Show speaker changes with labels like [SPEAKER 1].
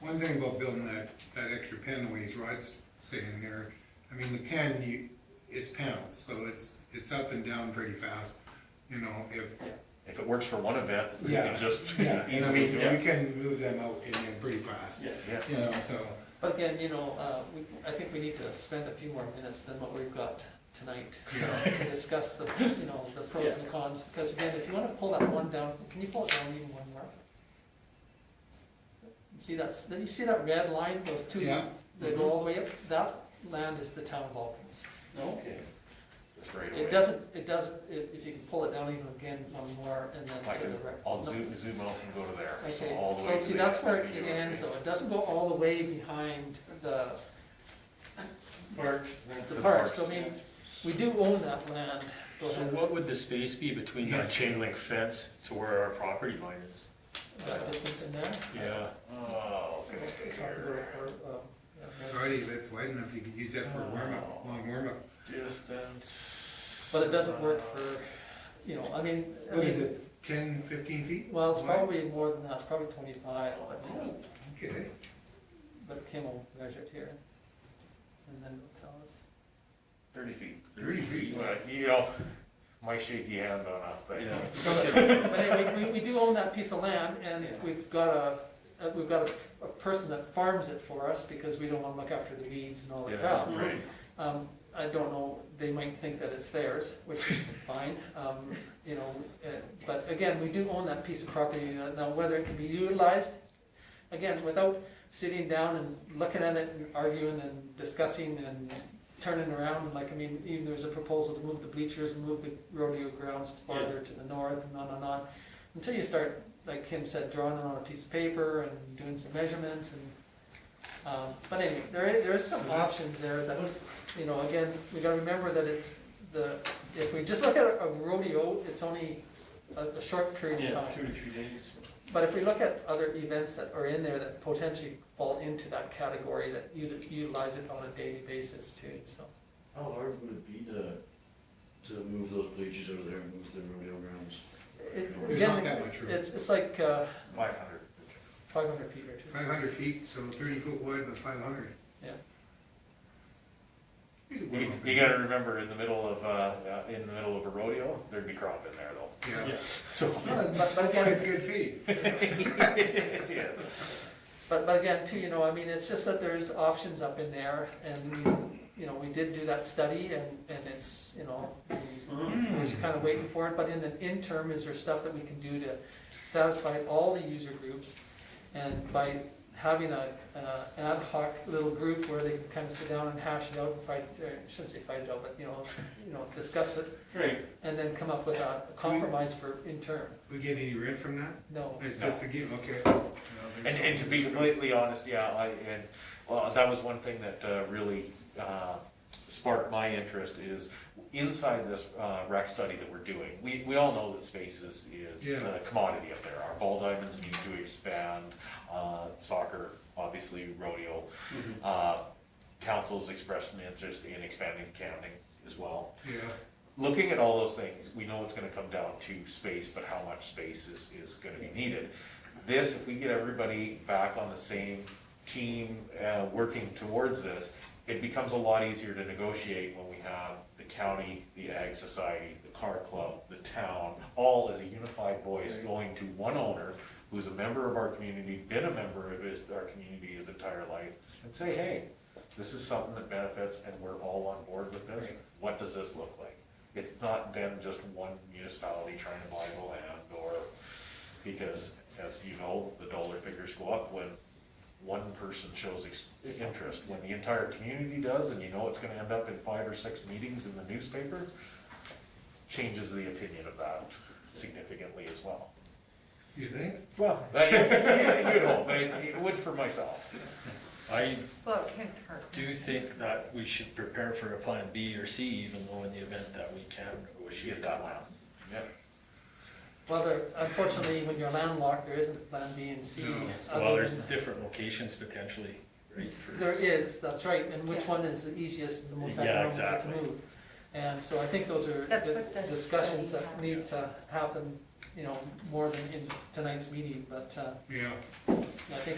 [SPEAKER 1] One thing about building that, that extra panel he's Rod's saying there, I mean, the pen, you, it's panels, so it's, it's up and down pretty fast, you know, if,
[SPEAKER 2] If it works for one event, we
[SPEAKER 1] yeah,
[SPEAKER 2] can just
[SPEAKER 1] yeah, and I mean,
[SPEAKER 2] easily, yeah,
[SPEAKER 1] we can move them out in there pretty fast,
[SPEAKER 2] yeah, yeah.
[SPEAKER 1] you know, so,
[SPEAKER 3] But again, you know, uh, we, I think we need to spend a few more minutes than what we've got tonight
[SPEAKER 1] Yeah.
[SPEAKER 3] to discuss the, you know, the pros and cons, because again, if you wanna pull that one down, can you pull it down even one more? See that's, then you see that red line, those two,
[SPEAKER 1] yeah. Mm-hmm.
[SPEAKER 3] that go all the way up, that land is the town of Alkins. No?
[SPEAKER 2] Okay. Just right away.
[SPEAKER 3] It doesn't, it doesn't, if, if you can pull it down even again one more and then
[SPEAKER 2] I
[SPEAKER 3] to
[SPEAKER 2] can,
[SPEAKER 3] the right.
[SPEAKER 2] I'll
[SPEAKER 3] No.
[SPEAKER 2] zoom, zoom out and go to there, so
[SPEAKER 3] Okay,
[SPEAKER 2] all the way.
[SPEAKER 3] so
[SPEAKER 2] to
[SPEAKER 3] see,
[SPEAKER 2] the-
[SPEAKER 3] that's where
[SPEAKER 2] you
[SPEAKER 3] it
[SPEAKER 2] know,
[SPEAKER 3] ends
[SPEAKER 2] okay.
[SPEAKER 3] though, it doesn't go all the way behind the,
[SPEAKER 2] Park. then to
[SPEAKER 3] the park, so I mean, we do own that land. Go
[SPEAKER 4] So
[SPEAKER 3] ahead.
[SPEAKER 4] what would the space be between that chain link fence to where our property line is?
[SPEAKER 3] That distance uh, in there.
[SPEAKER 4] Yeah,
[SPEAKER 2] Oh, okay,
[SPEAKER 3] Or-
[SPEAKER 2] here.
[SPEAKER 3] or, um, yeah, right.
[SPEAKER 1] Already, that's wide enough, you could use that for a warm-up,
[SPEAKER 2] Oh.
[SPEAKER 1] long warm-up.
[SPEAKER 2] Distance.
[SPEAKER 3] But it doesn't work for, you know, I mean, I
[SPEAKER 1] What is
[SPEAKER 3] mean,
[SPEAKER 1] it, ten, fifteen feet?
[SPEAKER 3] well, it's
[SPEAKER 1] wide?
[SPEAKER 3] probably more than that, it's probably twenty-five, but,
[SPEAKER 1] Okay,
[SPEAKER 3] but Kim will measure it here. And then it'll tell us.
[SPEAKER 2] Thirty feet.
[SPEAKER 1] thirty feet.
[SPEAKER 2] Well, You know, my shaky hand on a thing.
[SPEAKER 4] yeah.
[SPEAKER 3] So that- But anyway, we, we do own that piece of land, and we've got a, uh, we've got a, a person that farms it for us, because we don't wanna look after the weeds and all that crap.
[SPEAKER 4] Yeah, right.
[SPEAKER 3] Um, I don't know, they might think that it's theirs, which is fine, um, you know, uh, but again, we do own that piece of property, uh, now whether it can be utilized, again, without sitting down and looking at it and arguing and discussing and turning around, like, I mean, even there's a proposal to move the bleachers and move the rodeo grounds farther to the north and on and on. Until you start, like Kim said, drawing it on a piece of paper and doing some measurements and, um, but anyway, there is, there is some options there that, you know, again, we gotta remember that it's the, if we just look at a rodeo, it's only a, a short period of time.
[SPEAKER 4] two to three days.
[SPEAKER 3] But if we look at other events that are in there that potentially fall into that category, that uti- utilize it on a daily basis too, so.
[SPEAKER 5] How hard would it be to, to move those bleachers over there and move the rodeo grounds?
[SPEAKER 3] It-
[SPEAKER 1] There's not
[SPEAKER 3] Again,
[SPEAKER 1] that much room.
[SPEAKER 3] it's, it's like, uh,
[SPEAKER 2] Five hundred.
[SPEAKER 3] five hundred feet or two.
[SPEAKER 1] Five hundred feet, so thirty foot wide by five hundred.
[SPEAKER 3] Yeah.
[SPEAKER 2] You, you gotta remember, in the middle of, uh, uh, in the middle of a rodeo, there'd be crop in there though,
[SPEAKER 1] Yeah.
[SPEAKER 2] so.
[SPEAKER 1] Well,
[SPEAKER 3] But- but again-
[SPEAKER 1] It's good feed.
[SPEAKER 2] It is.
[SPEAKER 3] But, but again, too, you know, I mean, it's just that there's options up in there and, you know, we did do that study and, and it's, you know,
[SPEAKER 1] Mm-hmm.
[SPEAKER 2] Hmm.
[SPEAKER 3] we're just kind of waiting for it, but in the interim, is there stuff that we can do to satisfy all the user groups? And by having a, uh, ad hoc little group where they can kind of sit down and hash it out and fight, or I shouldn't say fight it out, but, you know, you know, discuss it
[SPEAKER 4] Great.
[SPEAKER 3] and then come up with a compromise for interim,
[SPEAKER 1] We get any rent from that?
[SPEAKER 3] no.
[SPEAKER 1] It's
[SPEAKER 2] No.
[SPEAKER 1] just a game, okay.
[SPEAKER 2] And, and to be completely honest, yeah, I, and, well, that was one thing that, uh, really, uh, sparked my interest is inside this, uh, rec study that we're doing, we, we all know that space is, is
[SPEAKER 1] Yeah.
[SPEAKER 2] the commodity up there. Our ball diamonds need to expand, uh, soccer, obviously rodeo. Uh, council's expressed an interest in expanding counting as well.
[SPEAKER 1] Yeah,
[SPEAKER 2] looking at all those things, we know it's gonna come down to space, but how much space is, is gonna be needed. This, if we get everybody back on the same team, uh, working towards this, it becomes a lot easier to negotiate when we have the county, the ag society, the car club, the town, all as a unified voice going to one owner who's a member of our community, been a member of his, our community his entire life, and say, hey, this is something that benefits and we're all on board with this, what does this look like? It's not then just one municipality trying to buy the land or, because as you know, the dollar figures go up when one person shows ex- interest. When the entire community does and you know it's gonna end up in five or six meetings in the newspaper, changes the opinion of that significantly as well.
[SPEAKER 1] you think?
[SPEAKER 2] Well, you know, but it it would for myself.
[SPEAKER 4] I
[SPEAKER 6] Well, it can't hurt.
[SPEAKER 4] do think that we should prepare for a plan B or C, even though in the event that we can negotiate that one.
[SPEAKER 2] Yeah.
[SPEAKER 3] Well, there, unfortunately, when you're landlocked, there isn't plan B and C.
[SPEAKER 1] No.
[SPEAKER 3] other
[SPEAKER 4] Well, there's
[SPEAKER 3] than-
[SPEAKER 4] different locations potentially, right? for-
[SPEAKER 3] There is, that's right, and which
[SPEAKER 6] Yeah.
[SPEAKER 3] one is the easiest and the most
[SPEAKER 4] Yeah,
[SPEAKER 3] economical to
[SPEAKER 4] exactly.
[SPEAKER 3] move? And so I think those are
[SPEAKER 6] That's
[SPEAKER 3] the
[SPEAKER 6] what the
[SPEAKER 3] discussions
[SPEAKER 6] study
[SPEAKER 3] that need to happen, you know, more than in tonight's meeting, but, uh,
[SPEAKER 1] Yeah.
[SPEAKER 3] I think